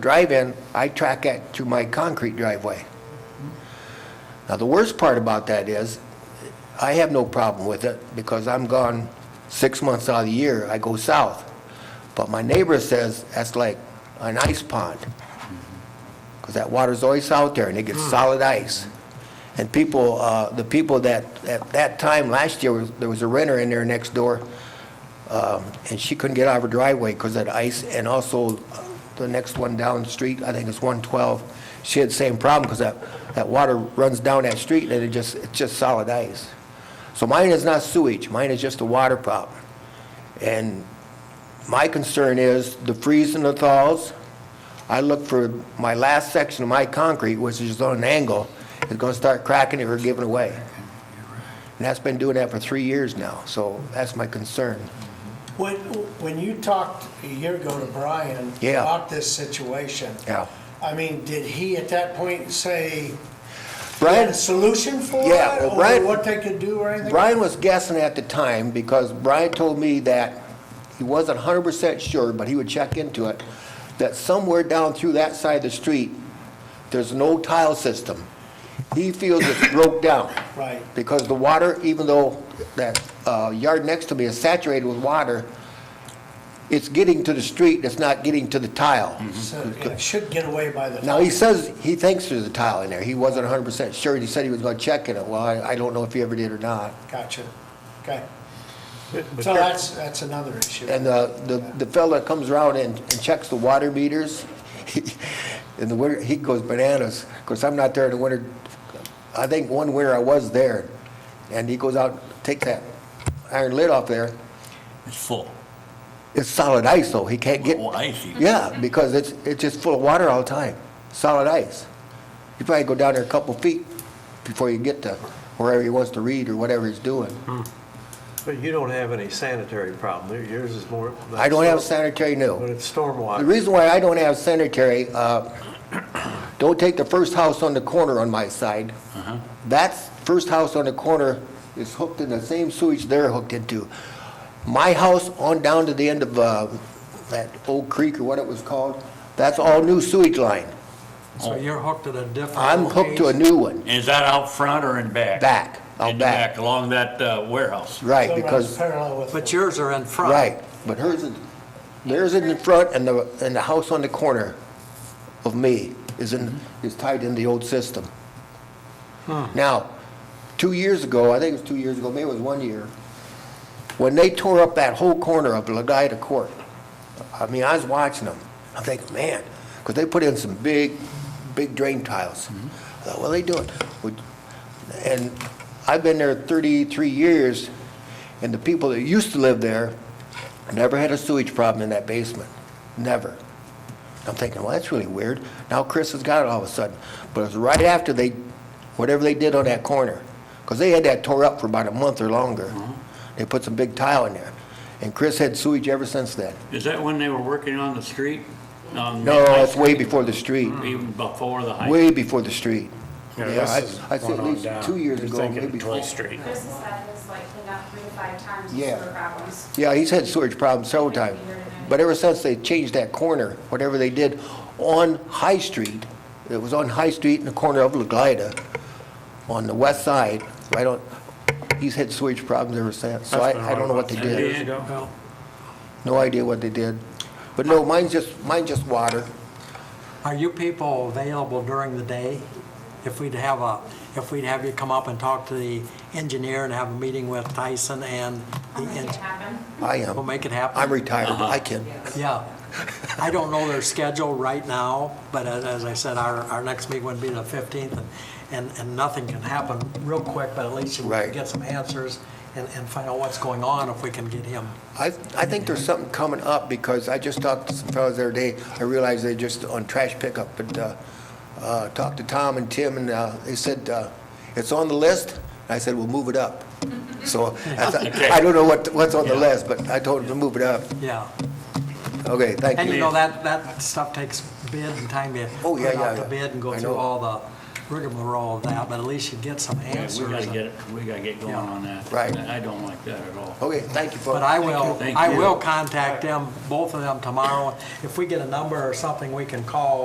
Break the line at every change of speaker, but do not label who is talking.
drive-in, I track it to my concrete driveway. Now, the worst part about that is, I have no problem with it, because I'm gone six months out of the year, I go south. But my neighbor says that's like an ice pond, because that water's always out there, and it gets solid ice. And people, uh, the people that, at that time last year, was- there was a renter in there next door, um, and she couldn't get out of her driveway because of the ice, and also uh, the next one down the street, I think it's 112, she had the same problem because that, that water runs down that street and it just, it's just solid ice. So mine is not sewage, mine is just a water problem. And my concern is the freeze and the thaws. I look for my last section of my concrete, which is on an angle, is going to start cracking or giving away. And that's been doing that for three years now, so that's my concern.
When, when you talked a year ago to Brian
Yeah.
about this situation,
Yeah.
I mean, did he at that point say, had a
Brian,
solution for
Yeah,
it?
well, Brian-
Or what they could do or anything?
Brian was guessing at the time because Brian told me that he wasn't hundred percent sure, but he would check into it, that somewhere down through that side of the street, there's an old tile system. He feels it's broke down.
Right.
Because the water, even though that uh, yard next to me is saturated with water, it's getting to the street, it's not getting to the tile.
So it should get away by the.
Now, he says, he thinks there's a tile in there. He wasn't hundred percent sure. He said he was gonna check in it. Well, I, I don't know if he ever did or not.
Gotcha. Okay. So that's, that's another issue.
And uh, the, the fella that comes around and and checks the water meters, he- in the winter, he goes bananas. Of course, I'm not there in the winter. I think one winter I was there, and he goes out, takes that iron lid off there.
It's full.
It's solid ice, though. He can't get.
Oh, icy.
Yeah, because it's, it's just full of water all the time, solid ice. You probably go down there a couple feet before you get to wherever he wants to read or whatever he's doing.
But you don't have any sanitary problem. Yours is more.
I don't have sanitary, no.
But it's
The
stormwater.
reason why I don't have cemetery, uh, don't take the first house on the corner on my side. That first house on the corner is hooked in the same sewage they're hooked into. My house on down to the end of uh, that old creek or what it was called, that's all new sewage line.
So you're hooked to a different.
I'm hooked to a
location.
new one,
Is that out front or in back?
back,
In
out
the back,
back.
along that uh, warehouse.
Right,
So it runs
because,
Parallel with.
But yours are in front.
right, but hers is, theirs is in the front and the, and the house on the corner of me is in, is tied in the old system. Now, two years ago, I think it was two years ago, maybe it was one year, when they tore up that whole corner of Legaida Court, I mean, I was watching them. I'm thinking, man, because they put in some big, big drain tiles. I thought, what are they doing? Would- And I've been there 33 years, and the people that used to live there never had a sewage problem in that basement, never. I'm thinking, well, that's really weird. Now Chris has got it all of a sudden. But it's right after they, whatever they did on that corner, because they had that tore up for about a month or longer.
Mm-hmm.
They put some big tile in there. And Chris had sewage ever since then.
Mm-hmm.
Is that when they were working on the street? On the
No,
high
it's way before the street,
street, Even before the high.
way before the street.
Mm-hmm. Yeah,
Yeah,
this
I-
is
I'd say
going
at
on
least
down.
two years
You're
ago,
thinking
maybe
Toy
four.
Street.
Chris has had his like cleaned up three to five times with
Yeah.
sewer problems.
Yeah, he's had sewage problems several times. But ever since they changed that corner, whatever they did on High Street, it was on High Street in the corner of La Glida, on the west side, right on, he's had sewage problems ever since. So I,
That's been
I don't know
around
what they
about
ten
did.
years.
Well,
No idea what they did. But no, mine's just, mine's just water.
Are you people available during the day? If we'd have a, if we'd have you come up and talk to the engineer and have a meeting with Tyson and the,
I'll make it
en-
happen.
I
we'll
am.
make it happen. Uh-huh.
I'm retired, but I can.
Yeah. I don't know their schedule right now, but as, as I said, our, our next meeting would be the fifteenth, and, and, and nothing can happen real quick, but at least we
Right.
can get some answers and, and find out what's going on if we can get him.
I, I think there's something coming up because I just talked to some fellows the other day. I realized they just on trash pickup, but, uh, uh, talked to Tom and Tim and, uh, they said, uh, it's on the list. I said, we'll move it up. So I thought- I don't know what, what's on the list, but I told them to move it up.
Yeah.
Okay, thank you.
And you know, that, that stuff takes bid and time to
Oh, yeah,
put
yeah,
out the
yeah.
bid and
I
go
know.
through all the, rigmarole of that, but at least you get some
Yeah,
answers.
We gotta get, it- we gotta get going
Yeah.
on that.
Right.
I don't like that at all.
Okay, thank you, folks.
But I will,
Thank
I
you.
will contact them, both of them tomorrow. If we get a number or something we can call,